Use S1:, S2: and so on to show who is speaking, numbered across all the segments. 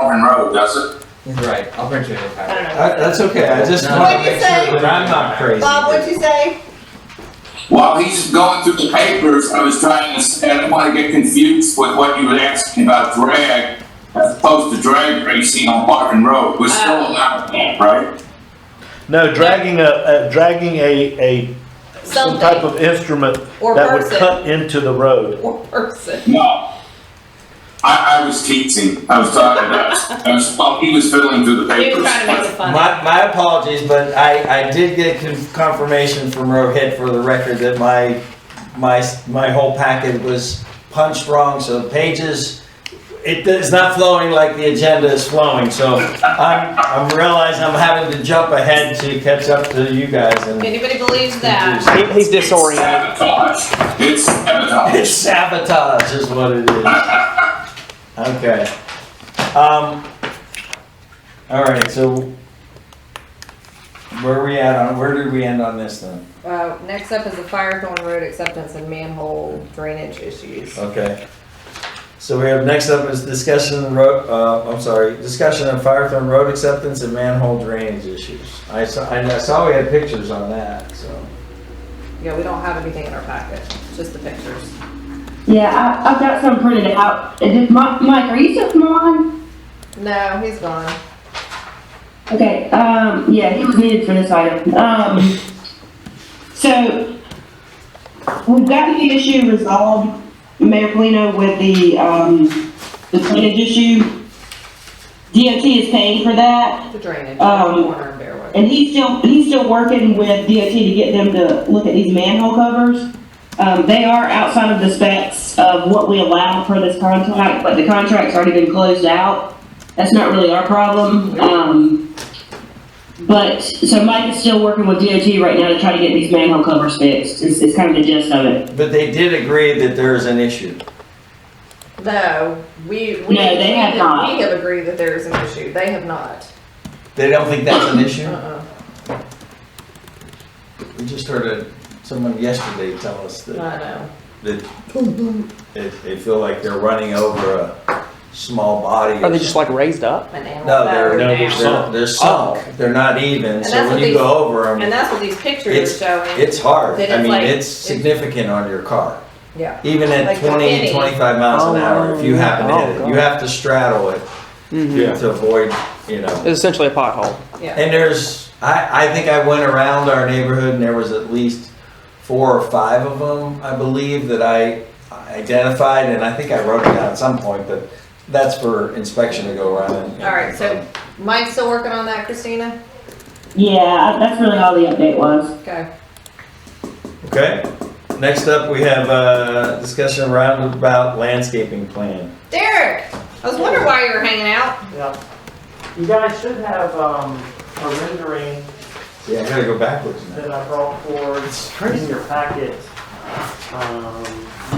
S1: probably doesn't.
S2: Right, I'll print you a new
S3: I
S2: copy.
S3: don't know.
S4: I- That's okay, I just
S2: No.
S4: want
S3: What'd
S4: to
S3: you
S4: make sure
S3: say?
S4: that I'm not crazy.
S3: Bob, what'd you say?
S1: While he's going through the papers, I was trying to, s- I didn't want to get confused with what you were asking about drag as opposed to drag racing on Martin Road. We're still
S3: Oh.
S1: allowed that, right?
S5: No, dragging a, a dragging a, a, some type
S3: Something
S5: of instrument
S3: Or
S5: that would
S3: person.
S5: cut into the road.
S3: or person.
S1: No. I, I was teasing. I was talking about, I was, well, he was fiddling through the
S3: He
S1: papers.
S3: was trying to make it funny.
S2: My, my apologies, but I, I did get con- confirmation from Rohit for the record that my, my, s- my whole packet was punched wrong, so the pages, it is not flowing like the agenda is flowing, so I'm, I'm realizing I'm having to jump ahead to catch up to you guys and.
S3: Anybody believes that?
S6: He- He's
S1: It's
S6: disoriented.
S1: Sabotage. It's
S2: It's
S1: sabotage.
S2: sabotage is what it is. Okay. Um, all right, so where are we at on, where did we end on this then?
S3: Uh, next up is the Firethorn Road acceptance and manhole drainage issues.
S2: Okay. So we have, next up is discussion of road, uh, I'm sorry, discussion of Firethorn road acceptance and manhole drainage issues. I saw, I saw we had pictures on that, so.
S3: Yeah, we don't have anything in our packet, just the pictures.
S7: Yeah, I, I've got some printed out. Is this Mi- Mike? Are you still from Milan?
S3: No, he's gone.
S7: Okay. Um, yeah, he was needed for this item. Um, so we've gotten the issue resolved, Mayor Polino, with the um, the drainage issue. DOT is paying for that,
S3: The drainage,
S7: Um,
S3: corner of Bearwood.
S7: and he's still he's still working with DOT to get them to look at these manhole covers. Um, they are outside of the specs of what we allow for this contract, but the contract's already been closed out. That's not really our problem. Um, but so Mike is still working with DOT right now to try to get these manhole covers fixed. Is, is kind of the gist of it.
S2: But they did agree that there is an issue.
S3: No, we, we.
S7: No, they have
S3: we-
S7: not.
S3: We have agreed that there is an issue. They have not.
S2: They don't think that's an issue?
S3: Uh-uh.
S2: We just heard a, someone yesterday tell us
S3: I
S2: that,
S3: know.
S2: that they, they feel like they're running over a small body.
S6: Are
S2: or
S6: they just like raised up?
S3: An animal.
S2: No, they're,
S5: No,
S3: now.
S5: they're
S2: they're, they're sunk, they're not even,
S3: And
S2: so
S3: that's
S2: when
S3: what
S2: you go over
S3: And
S2: them,
S3: that's what these pictures
S2: It's-
S3: are showing.
S2: it's hard.
S3: Then
S2: I
S3: it's
S2: mean,
S3: like-
S2: it's significant on your car.
S3: Yeah.
S2: Even at
S3: Like a
S2: 20,
S3: penny.
S2: 25 miles an
S6: Oh,
S2: hour, if you
S6: yeah.
S2: happen to
S6: Oh,
S2: hit it,
S6: God.
S2: you have to straddle it
S6: Mm-hmm.
S5: Yeah.
S2: to avoid, you know.
S6: It's essentially a pothole.
S3: Yeah.
S2: And there's, I, I think I went around our neighborhood and there was at least four or five of them, I believe, that I identified, and I think I wrote it down at some point, but that's for inspection to go around and.
S3: All right, so Mike's still working on that, Christina?
S7: Yeah, that's really all the update was.
S3: Okay.
S2: Okay, next up, we have a discussion roundabout landscaping plan.
S3: Derek, I was wondering why you were hanging out.
S8: Yeah. You guys should have, um, a rendering
S2: Yeah, I gotta go backwards now.
S8: that I brought forward in your packet. Um,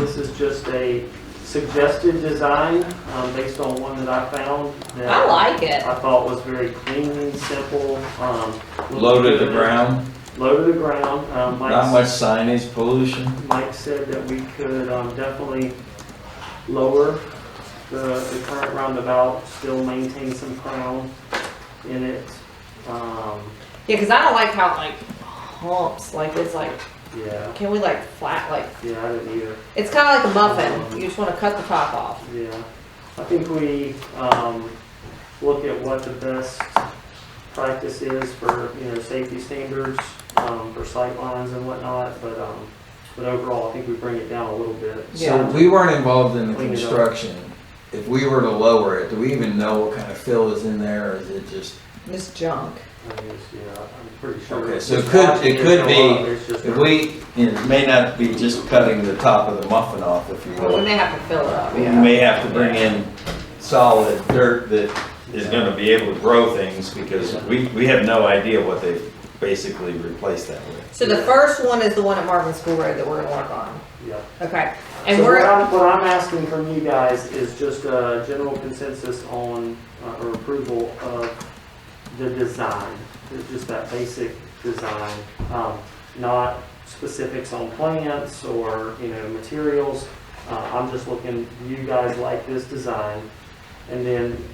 S8: this is just a suggested design, um, based on one that I found that
S3: I like it.
S8: I thought was very clean, simple, um.
S2: Low to the ground,
S8: Low to the ground, um, Mike's.
S2: not much signage, pollution.
S8: Mike said that we could um, definitely lower the, the current roundabout, still maintain some crown in it. Um,
S3: Yeah, because I don't like how it like humps. Like it's like,
S8: yeah,
S3: can we like flat like?
S8: yeah, I didn't either,
S3: It's kind of like a muffin. You just want to cut the top off.
S8: yeah. I think we, um, look at what the best practice is for, you know, safety standards, um, for sight lines and whatnot, but, um, but overall, I think we bring it down a little bit.
S2: So we weren't involved in the
S8: Clean it up.
S2: construction. If we were to lower it, do we even know what kind of fill is in there, or is it just?
S3: This junk.
S8: I guess, yeah, I'm pretty sure.
S2: Okay, so it could- it could be-
S8: It's just-
S2: If we, it may not be just cutting the top of the muffin off, if you
S3: Well, we
S2: will.
S3: may have to fill it up.
S2: We
S3: Yeah.
S2: may have to bring in solid dirt that is gonna be able to grow things, because we, we have no idea what they basically replaced that with.
S3: So the first one is the one at Marvin School Road that we're gonna work on.
S8: Yeah.
S3: Okay. And
S8: So what
S3: we're
S8: I'm, what I'm asking from you guys is just a general consensus on, uh, or approval of the design. It's Just that basic design, um, not specifics on plants or, you know, materials. Uh, I'm just looking, you guys like this design. And then